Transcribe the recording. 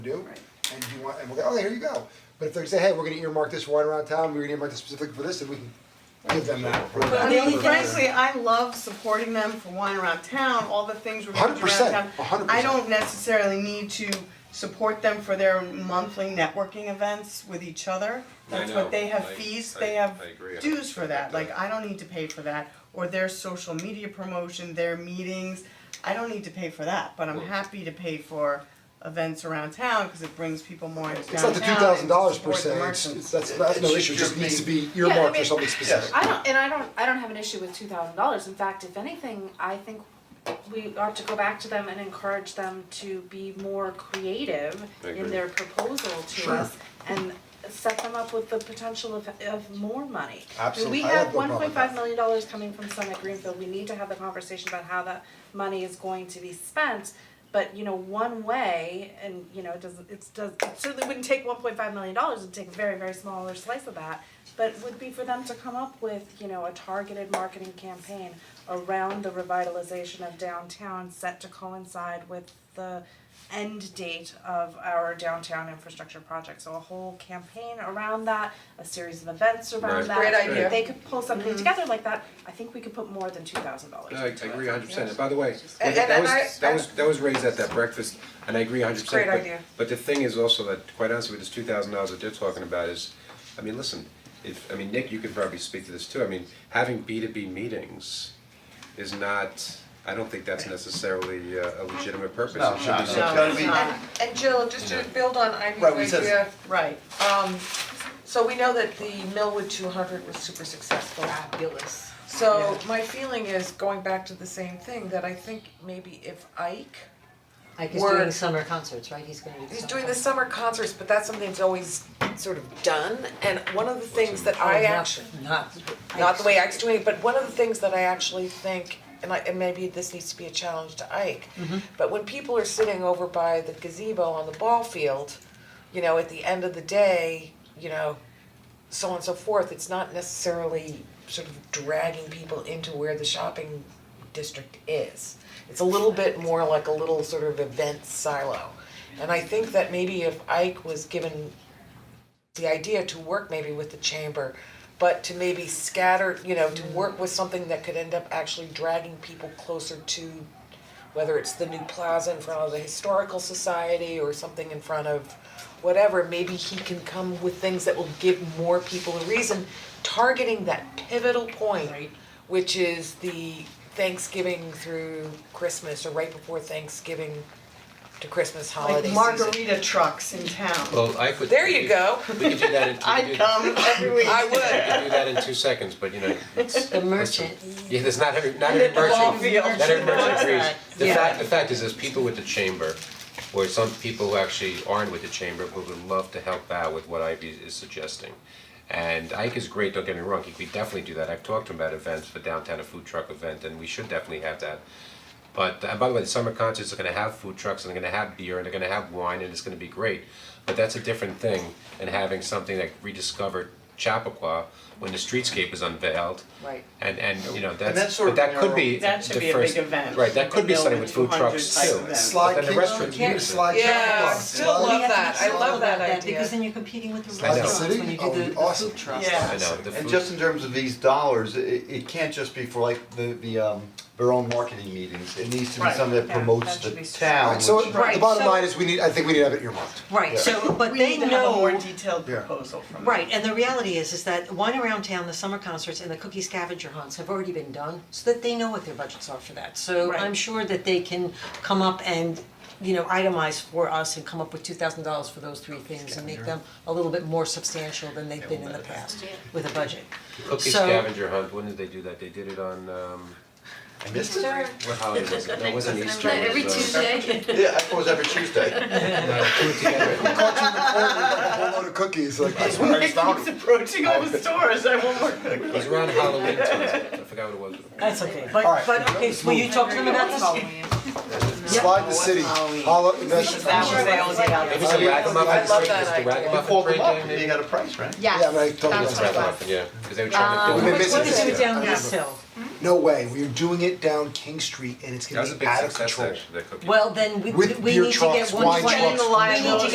do, Right. and you want, and we'll go, okay, here you go. But if they say, hey, we're gonna earmark this one around town, we're gonna earmark this specifically for this, then we can give them that. for I that. mean, frankly, I love supporting them for wine around town, all the things we're doing around 100%, town. 100%. I don't necessarily need to support them for their monthly networking events with each other. I That's know, what they have I- fees, I- they have I agree, I dues for that, think like that- I don't need to pay for that, or their social media promotion, their meetings. I don't need to pay for that, but I'm Well- happy to pay for events around town, cause it brings people more into It's not downtown the and two thousand dollars per support the se, it's, merchants. it's, that's, that's no It issue, it should just needs to just be I earmarked for mean- something specific. I don't, and I don't, I don't have an issue with two thousand dollars, in fact, if anything, I think we ought to go back to them and encourage them to be more creative I agree. in their proposal to Sure. us and set them up with the potential of of more money. Absolute- We I have have no one problem point with that. five million dollars coming from Summit Greenfield, we need to have the conversation about how that money is going to be spent. But you know, one way, and you know, it doesn't, it's does, it certainly wouldn't take one point five million dollars, it'd take a very, very smaller slice of that. But would be for them to come up with, you know, a targeted marketing campaign around the revitalization of downtown set to coincide with the end date of our downtown infrastructure project. So a whole campaign around that, a series of events around Right. that. Great idea. If they could pull something together like that, I think we could put more than two thousand dollars No, I I into it. agree hundred percent, and by the way, And- that and was, I- that was, that was raised at that breakfast, and I agree hundred percent, Great but idea. but the thing is also that, quite honestly, with this two thousand dollars that they're talking about is, I mean, listen, if, I mean, Nick, you can probably speak to this too, I mean, having B two B meetings is not, I don't think that's necessarily uh, a legitimate purpose, No, it should be no, something. no. No, it's not, And Jill, just to build on Ivy's Right, we said- idea, right. um, so we know that the Millwood two hundred was super successful. Fabulous. So my feeling is, going back to the same thing, that I think maybe if Ike, Like he's We're- doing summer concerts, right? He's gonna do the he's summer doing the concerts. summer concerts, but that's something that's always sort of done, and one of the things that I Oh, not- actually. Not. not the way Ike's doing it, but one of the things that I actually think, and I, and maybe this needs to be a challenge to Ike, but when people are sitting over by the gazebo on the ball field, you know, at the end of the day, you know, so on and so forth, it's not necessarily sort of dragging people into where the shopping district is. It's a little bit more like a little sort of event silo. And I think that maybe if Ike was given the idea to work maybe with the chamber, but to maybe scatter, you know, to work with something that could end up actually dragging people closer to whether it's the new plaza in front of the historical society or something in front of whatever, maybe he can come with things that will give more people a reason, targeting that pivotal point, which is the Thanksgiving through Christmas or right before Thanksgiving to Christmas holiday Like season. margarita trucks in town. Well, I could. There you go. We could do that in, we could I'd do, come every week. I would. we could do that in two seconds, but you know, it's- The merchant. Yeah, there's not every, not every the ball merchant, field. not every merchant agrees. The Yeah. fact, the fact is, there's people with the chamber, or some people who actually aren't with the chamber, who would love to help out with what Ivy is suggesting. And Ike is great, don't get me wrong, he could definitely do that, I've talked to him about events, for downtown a food truck event, and we should definitely have that. But, and by the way, the summer concerts are gonna have food trucks, and they're gonna have beer, and they're gonna have wine, and it's gonna be great. But that's a different thing than having something like rediscovered Chappaqua, when the streetscape is unveiled, Right. and and you know, that's that's, sort but of that could narrow. be the That first. should be a big event, Right, that like could a be something Millwood with food 200 trucks type too, event. but then the restaurant, Slide King, Slide Yeah, I Chappaqua, still Slide- love that. I love that idea. Because then you're competing with the I know. restaurants City? when you Oh, do the the awesome. food trucks. Yeah. I know, the And food, just in terms of these dollars, it it can't just be for like the the um their own marketing meetings, it needs to be Right. something that Yeah, promotes that the should be town, Alright, so which- the bottom line is, we need, I think we need to have it earmarked. Right, so, but We they need to have a more know, detailed Yeah. proposal from them. right, and the reality is, is that Wine Around Town, the summer concerts and the cookie scavenger hunts have already been done, so that they know what their budgets are for that. So Right. I'm sure that they can come up and, you know, itemize for us and come up with two thousand dollars for those three things and make them a little bit more substantial than they've been in the past with a budget. cookie so- scavenger hunt, when did they do that? They did it on um, I missed it. Sure. what holiday was it? No, it wasn't Easter, it Every was, uh, Tuesday. Yeah, I thought it was every Tuesday. Caught you in the corner with like a whole load of cookies, like, that's what It keeps approaching all the stores, I want more cookies. It was around Halloween time, I forgot what it was. That's okay, Alright, but but okay, will you talk to them about this? Slide the city, hollow, that's, That was the only It other. was the Ragamuffin, I love it was that the idea. You Ragamuffin called them parade up, game, and you maybe? got a price, right? yeah, I mean, I totally It missed was that. Ragamuffin, yeah, because they were trying We've to build. been missing What did this. you do down I this remember. hill? No way, we're doing it down King Street and it's That gonna was a be big out of success control. actually, that cookie. Well, then we With we beer need to trucks, get one wine twenty, trucks, we need to